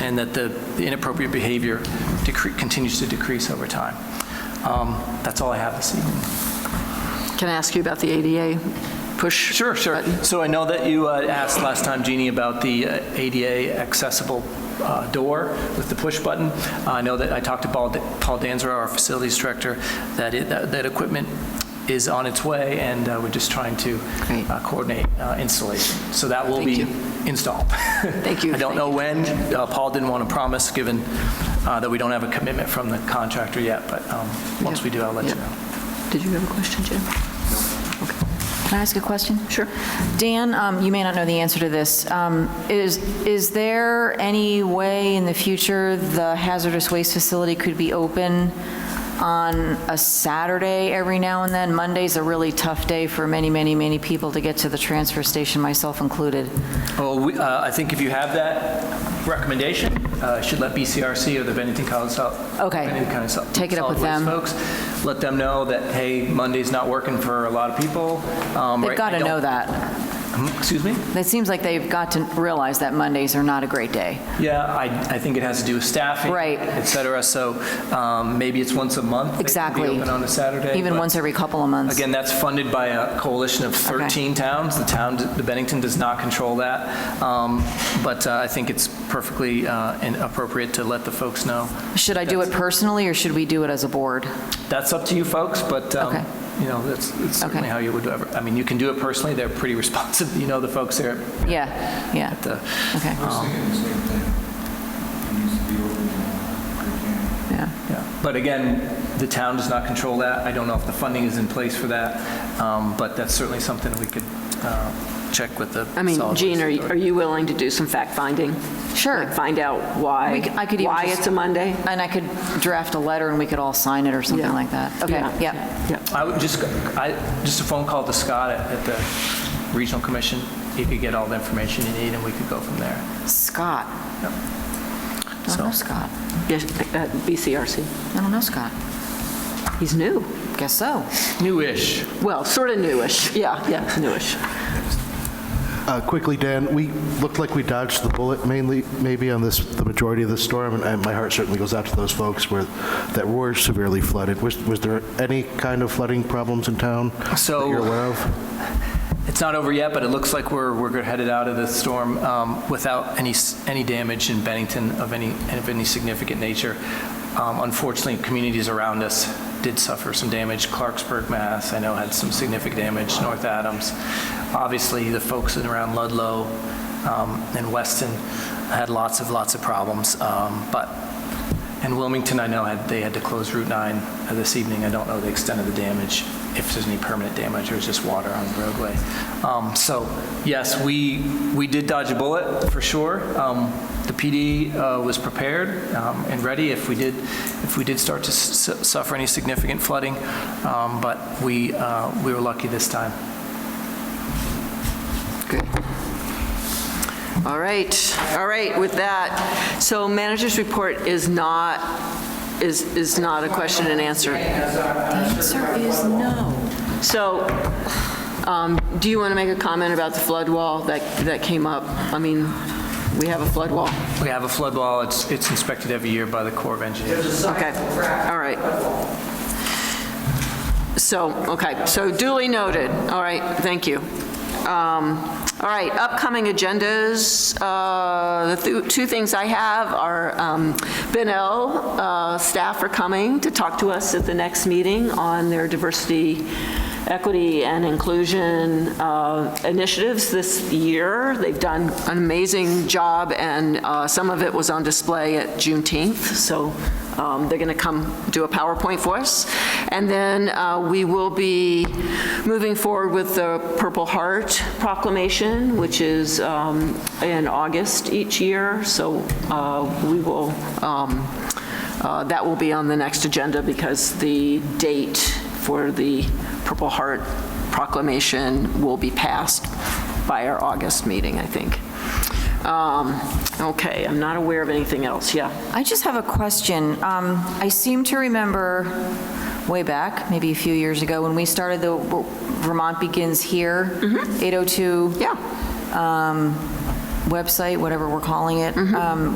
and that the inappropriate behavior decre- continues to decrease over time. Um, That's all I have this evening. Can I ask you about the ADA push? Sure, sure. button? So I know that you uh, asked last time, Jeannie, about the uh, ADA accessible uh, door with the push button. Uh, I know that I talked to Paul Paul Danzer, our facilities director, that it- that that equipment is on its way, and uh, we're just trying to Great. uh, coordinate uh, installation. So that will Thank be you. installed. Thank you, I don't thank know you. when. Uh, Paul didn't want to promise, given uh, that we don't have a commitment from the contractor yet, but um, once Yeah. we do, I'll let Yeah. you know. Did you have a question, Jim? Can I ask a question? Sure. Dan, um, you may not know the answer to this. Um, Is, is there any way in the future the hazardous waste facility could be open on a Saturday every now and then? Monday's a really tough day for many, many, many people to get to the transfer station, myself included. Well, we- uh, I think if you have that recommendation, uh, should let BCRC or the Bennington College Sol- Okay. Bennington County Sol- Take it up with Solid Waste them. folks, let them know that, hey, Monday's not working for a lot of people. Um, They've right, got I to don't- know that. Hmm, Excuse me? It seems like they've got to realize that Mondays are not a great day. Yeah, I, I think it has to do with staffing. Right. Et cetera, so um, maybe it's once a month. they can Exactly. be open on a Saturday. Even but- once every couple of months. Again, that's funded by a coalition of 13 towns. The town, the Bennington does not control that. Um, But uh, I think it's perfectly uh, and appropriate to let the folks know. Should I do it personally, or should we do it as a board? That's up to you folks, but, um, Okay. you know, that's that's Okay. certainly how you would ever, I mean, you can do it personally. They're pretty responsive, you know, the folks there Yeah, yeah, at the, okay, I was thinking the same thing. It needs to be open, uh, we can yeah. yeah. But again, the town does not control that. I don't know if the funding is in place for that, um, but that's certainly something we could uh, check with the. I mean, solid waste Jean, are you- authority. are you willing to do some fact-finding? Sure. Like, Find out We why, c- I could even why just- it's a Monday? And I could draft a letter and we could all sign it or something Yeah. like that. Okay, yeah. Yeah. I would just, I, just a phone call to Scott at, at the Regional Commission. He could get all the information you need, and we could go from there. Scott. I So- don't know Scott. Yes, uh, BCRC. I don't know Scott. He's new. Guess so. Newish. Well, sort of newish. Yeah, yeah, newish. Uh, Quickly, Dan, we looked like we dodged the bullet mainly, maybe on this, the majority of this storm, and- and my heart certainly goes out to those folks where, that were severely flooded. Was, was there any kind of flooding problems in town that So- you're aware of? It's not over yet, but it looks like we're, we're headed out of this storm um, without any, s- any damage in Bennington of any, of any significant nature. Um, Unfortunately, communities around us did suffer some damage. Clarksburg, Mass, I know had some significant damage, North Adams. Obviously, the folks in around Ludlow um, and Weston had lots of, lots of problems. Um, But, and Wilmington, I know, had, they had to close Route 9 this evening. I don't know the extent of the damage, if there's any permanent damage or it's just water on the roadway. Um, So, yes, we, we did dodge a bullet, for sure. Um, The PD uh, was prepared um, and ready if we did, if we did start to s- s- suffer any significant flooding, Um, but we, uh, we were lucky this time. Good. All right, all right, with that, so manager's report is not, is, is not a question and answer. The answer is no. So, um, do you want to make a comment about the flood wall that, that came up? I mean, we have a flood wall. We have a flood wall, it's, it's inspected every year by the Corps of Engineers. Okay, all right. So, okay, so duly noted. All right, thank you. Um, All right, upcoming agendas, uh, the th- two things I have are um, Ben El, uh, staff are coming to talk to us at the next meeting on their diversity, equity, and inclusion uh, initiatives this year. They've done an amazing job, and uh, some of it was on display at Juneteenth, so um, they're going to come do a PowerPoint for us. And then uh, we will be moving forward with the Purple Heart proclamation, which is um, in August each year. So uh, we will, um, uh, that will be on the next agenda because the date for the Purple Heart proclamation will be passed by our August meeting, I think. Um, Okay, I'm not aware of anything else. Yeah. I just have a question. Um, I seem to remember way back, maybe a few years ago, when we started the Vermont Begins Here 802 Mm-hmm. Yeah. Mm-hmm. website, whatever we're calling it. Um,